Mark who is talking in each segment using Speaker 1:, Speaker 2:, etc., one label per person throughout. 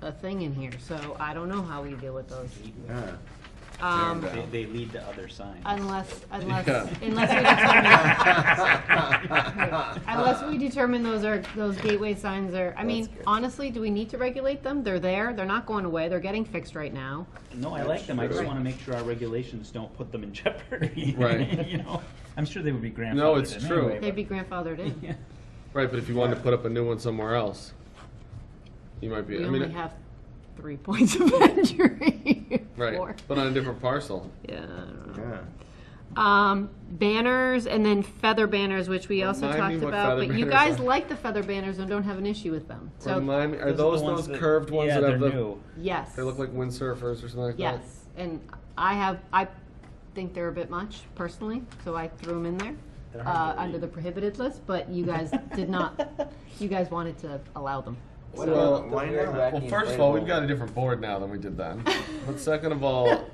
Speaker 1: a thing in here, so I don't know how we deal with those.
Speaker 2: Yeah.
Speaker 1: Um,
Speaker 2: Fair
Speaker 3: They, they lead to other signs.
Speaker 1: unless, unless,
Speaker 2: Yeah.
Speaker 1: unless we determine. Unless we determine those are, those gateway signs are, I mean, honestly, do we need to regulate them? They're there, they're not going away, they're getting fixed right now.
Speaker 3: No, I like them, I just
Speaker 2: Right.
Speaker 3: wanna make sure our regulations don't put them in jeopardy.
Speaker 2: Right.
Speaker 3: You know, I'm sure they would be grandfathered in
Speaker 2: No, it's true.
Speaker 3: anyway,
Speaker 1: They'd be grandfathered
Speaker 3: but-
Speaker 1: in.
Speaker 3: Yeah.
Speaker 2: Right, but if you wanted to put up a new one somewhere else, you might be,
Speaker 1: We
Speaker 2: I mean.
Speaker 1: only have three points of entry. Four.
Speaker 2: Right, but on a different parcel.
Speaker 1: Yeah, I don't know.
Speaker 4: Yeah.
Speaker 1: Um, banners and then feather banners, which we also
Speaker 2: Remind me
Speaker 1: talked
Speaker 2: what
Speaker 1: about,
Speaker 2: feather
Speaker 1: but you
Speaker 2: banners
Speaker 1: guys
Speaker 2: are.
Speaker 1: like the feather banners and don't have an issue with them. So,
Speaker 2: Remind me, are
Speaker 3: are the
Speaker 2: those those
Speaker 3: that-
Speaker 2: curved ones
Speaker 3: yeah,
Speaker 2: that have
Speaker 3: they're
Speaker 2: the,
Speaker 3: new.
Speaker 1: yes.
Speaker 2: they look like windsurfers or something like that?
Speaker 1: Yes, and I have, I think they're a bit much personally, so I threw them in there.
Speaker 3: They're hard
Speaker 1: Uh,
Speaker 3: to
Speaker 1: under the
Speaker 3: read.
Speaker 1: prohibited list, but you guys did not, you guys wanted to allow them.
Speaker 4: What
Speaker 2: Well,
Speaker 4: about the
Speaker 2: why
Speaker 4: weird
Speaker 2: not?
Speaker 4: wacky
Speaker 2: Well, first of all, we've
Speaker 4: inflatable-
Speaker 2: got a different board now than we did then. But second of all,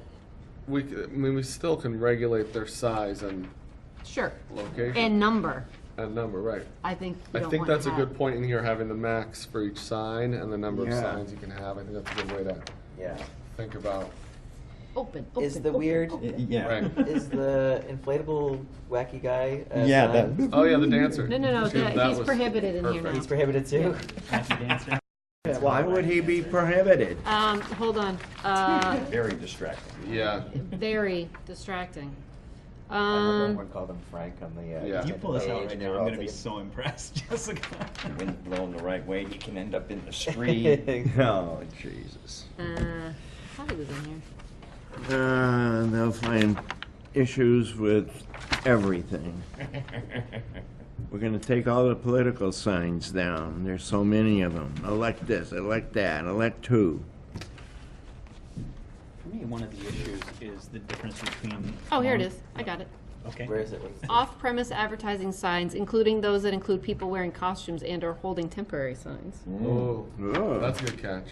Speaker 2: we, c- I mean, we still can regulate their size and
Speaker 1: Sure.
Speaker 2: location
Speaker 1: And number,
Speaker 2: and number, right?
Speaker 1: I think you
Speaker 2: I
Speaker 1: don't
Speaker 2: think
Speaker 1: want
Speaker 2: that's
Speaker 1: to
Speaker 2: a good
Speaker 1: have-
Speaker 2: point in here, having the max for each sign and the number of
Speaker 4: Yeah.
Speaker 2: signs you can have. I think that's a good way to
Speaker 4: Yeah.
Speaker 2: think about,
Speaker 1: Open, open,
Speaker 4: Is the
Speaker 1: open,
Speaker 4: weird-
Speaker 1: open.
Speaker 2: right?
Speaker 4: Is the inflatable wacky guy? A
Speaker 5: Yeah,
Speaker 4: sign?
Speaker 5: that-
Speaker 2: Oh, yeah, the dancer.
Speaker 1: No, no, no,
Speaker 2: See,
Speaker 1: the-
Speaker 2: that
Speaker 1: he's
Speaker 2: was
Speaker 1: prohibited in here
Speaker 2: perfect.
Speaker 1: now.
Speaker 4: he's prohibited too.
Speaker 3: Happy dancer.
Speaker 4: Why would he be prohibited?
Speaker 1: Um, hold on, uh,
Speaker 5: Very distracting.
Speaker 2: Yeah,
Speaker 1: very distracting.
Speaker 4: I remember
Speaker 1: Um,
Speaker 4: everyone called him Frank on the. Uh,
Speaker 2: Yeah.
Speaker 3: You
Speaker 4: the
Speaker 3: pull this out
Speaker 4: page,
Speaker 3: right
Speaker 4: and
Speaker 3: now,
Speaker 4: they're
Speaker 3: I'm
Speaker 4: all
Speaker 3: gonna be
Speaker 4: taking-
Speaker 3: so impressed, Jessica.
Speaker 5: Wind blowing the right way, he can end up in the street. oh, Jesus.
Speaker 1: uh, thought he was in here.
Speaker 6: Uh, they'll find issues with everything. We're gonna take all the political signs down. There's so many of them. Elect this, elect that, elect two.
Speaker 3: For me, one of the issues is the difference between.
Speaker 1: Oh, here it
Speaker 3: long-
Speaker 1: is, I got it.
Speaker 3: Okay.
Speaker 4: Where is it? What is it?
Speaker 1: Off-premise advertising signs, including those that include people wearing costumes and/or holding temporary signs.
Speaker 2: oh,
Speaker 6: Ugh.
Speaker 2: that's a good catch.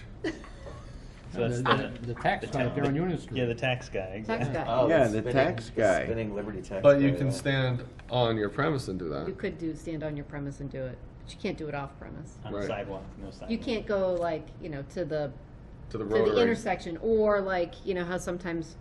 Speaker 3: So that's the,
Speaker 7: The tax guy up there on Union Street.
Speaker 3: yeah, the tax guy.
Speaker 1: Tax
Speaker 3: exactly.
Speaker 1: guy.
Speaker 4: Oh,
Speaker 6: Yeah,
Speaker 4: it's
Speaker 6: the
Speaker 4: spinning-
Speaker 6: tax
Speaker 4: it's
Speaker 6: guy.
Speaker 4: Spinning Liberty tax.
Speaker 2: But you
Speaker 4: guy,
Speaker 2: can
Speaker 4: yeah.
Speaker 2: stand on your premise and do
Speaker 1: You
Speaker 2: that.
Speaker 1: could do stand on your premise and do it, but you can't do it off-premise.
Speaker 3: On the
Speaker 2: Right.
Speaker 3: sidewalk, no sidewalk.
Speaker 1: You can't go like, you know, to the, to
Speaker 2: To the
Speaker 1: the
Speaker 2: rotary.
Speaker 1: intersection, or like, you know, how sometimes,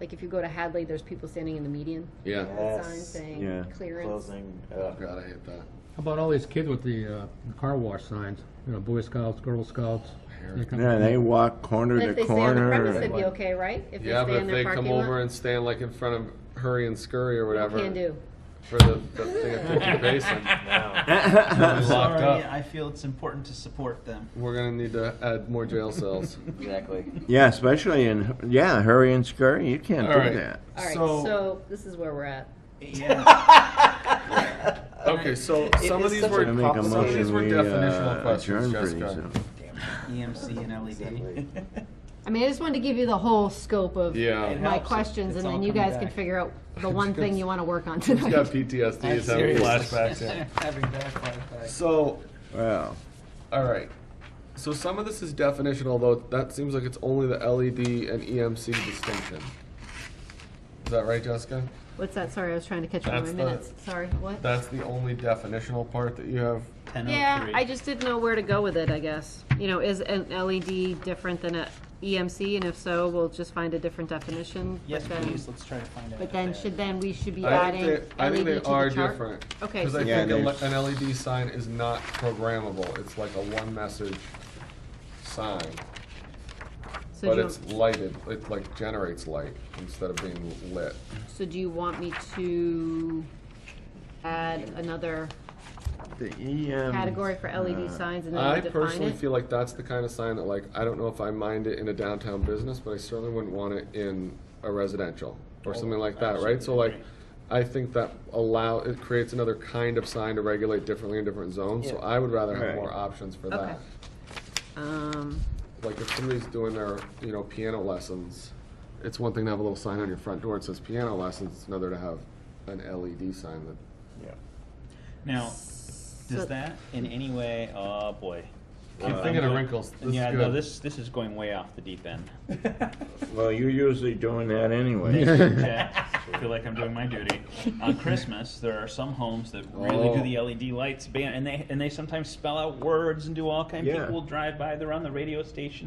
Speaker 1: like if you go to Hadley, there's people standing in the median.
Speaker 2: Yeah. Oh,
Speaker 1: with signs
Speaker 4: Yes.
Speaker 6: Yeah.
Speaker 1: saying clearance.
Speaker 4: Closing. Uh,
Speaker 2: God, I hate that.
Speaker 7: How about all these kids with the uh, car wash signs? You know, Boy Scouts, Girl Scouts. that kind of
Speaker 6: Yeah,
Speaker 7: thing.
Speaker 6: they walk corner
Speaker 1: But if
Speaker 6: to
Speaker 1: they stay on the
Speaker 6: corner.
Speaker 1: premise, they'd be okay, right? If they
Speaker 2: Yeah,
Speaker 1: stay
Speaker 2: but if
Speaker 1: in
Speaker 2: they
Speaker 1: their
Speaker 2: come
Speaker 1: parking
Speaker 2: over
Speaker 1: lot.
Speaker 2: and stand like in front of Hurry and Scurry or whatever.
Speaker 1: Can do.
Speaker 2: For the, the thing at Fifty Basin.
Speaker 3: I'm
Speaker 2: It's locked
Speaker 3: sorry,
Speaker 2: up.
Speaker 3: I feel it's important to support them.
Speaker 2: We're gonna need to add more jail cells.
Speaker 4: exactly.
Speaker 6: Yeah, especially in, yeah, hurry and scurry, you can't
Speaker 2: All
Speaker 6: do
Speaker 2: right.
Speaker 6: that.
Speaker 1: All right,
Speaker 2: So-
Speaker 1: so this is where we're at.
Speaker 3: Yeah.
Speaker 2: Okay, so some of
Speaker 4: is
Speaker 2: these
Speaker 4: such
Speaker 2: were,
Speaker 6: I make a
Speaker 2: some of these
Speaker 6: motion,
Speaker 2: were
Speaker 6: we
Speaker 2: definitional
Speaker 6: uh,
Speaker 2: questions,
Speaker 6: adjourn pretty
Speaker 2: Jessica.
Speaker 6: soon.
Speaker 3: EMC E and LED.
Speaker 1: I mean, I just wanted to give you the whole scope of
Speaker 2: Yeah.
Speaker 1: my
Speaker 3: helps.
Speaker 1: questions,
Speaker 3: It's
Speaker 1: and then
Speaker 3: all
Speaker 1: you
Speaker 3: coming
Speaker 1: guys can
Speaker 3: back.
Speaker 1: figure out the one thing you want to work on
Speaker 2: He's got
Speaker 1: tonight.
Speaker 2: PTSD, he's having
Speaker 3: serious.
Speaker 2: flashbacks. yeah.
Speaker 3: Having backflashbacks.
Speaker 2: So,
Speaker 6: Well,
Speaker 2: all right. So some of this is definitional, though. That seems like it's only the LED and EMC distinction. Is that right, Jessica?
Speaker 1: What's that? Sorry, I was trying to catch up on my
Speaker 2: That's the-
Speaker 1: minutes. Sorry, what?
Speaker 2: That's the only definitional part that you have.
Speaker 1: Yeah, I just didn't know where to go with it, I guess. You know, is an LED different than a EMC? And if so, we'll just find a different definition.
Speaker 3: Yes,
Speaker 1: but then-
Speaker 3: please, let's try to find out.
Speaker 1: But then, should then we should be
Speaker 2: I
Speaker 1: adding LED
Speaker 2: think they, I think they
Speaker 1: to the
Speaker 2: are
Speaker 1: chart?
Speaker 2: different.
Speaker 1: Okay,
Speaker 2: Because
Speaker 1: so-
Speaker 2: I
Speaker 6: Yeah,
Speaker 2: think a le-
Speaker 6: there's-
Speaker 2: an LED sign is not programmable. It's like a one-message sign,
Speaker 1: So
Speaker 2: but
Speaker 1: do you-
Speaker 2: it's lighted. It like generates light instead of being lit.
Speaker 1: So do you want me to add another
Speaker 6: the E Uh, EM.
Speaker 1: category for E LED signs and
Speaker 2: Uh, I
Speaker 1: then we define
Speaker 2: personally
Speaker 1: it?
Speaker 2: feel like that's the kind of sign that like, I don't know if I mind it in a downtown business, but I certainly wouldn't want it in a residential
Speaker 1: Oh,
Speaker 2: or something like that, right? So like, I think that allow, it creates another kind of sign to regulate differently in different zones, so
Speaker 4: Yeah.
Speaker 2: I would rather have
Speaker 6: Right.
Speaker 2: more options for
Speaker 1: Okay.
Speaker 2: that.
Speaker 1: Um,
Speaker 2: Like if somebody's doing their, you know, piano lessons, it's one thing to have a little sign on your front door that says piano lessons, it's another to have an LED sign that,
Speaker 3: Now,
Speaker 1: So-
Speaker 3: does that in any way, oh boy.
Speaker 2: I'm
Speaker 3: Uh,
Speaker 2: thinking of
Speaker 3: go-
Speaker 2: wrinkles. This is
Speaker 3: Yeah, no,
Speaker 2: good.
Speaker 3: this, this is going way off the deep end.
Speaker 6: Well, you're usually doing that anyway.
Speaker 3: Okay, I feel like I'm doing my duty. On Christmas, there are some homes that really do
Speaker 2: Oh.
Speaker 3: the E LED lights ban, and they, and they sometimes spell out words and do all kinds.
Speaker 6: Yeah.
Speaker 3: People will drive by, they're on the radio station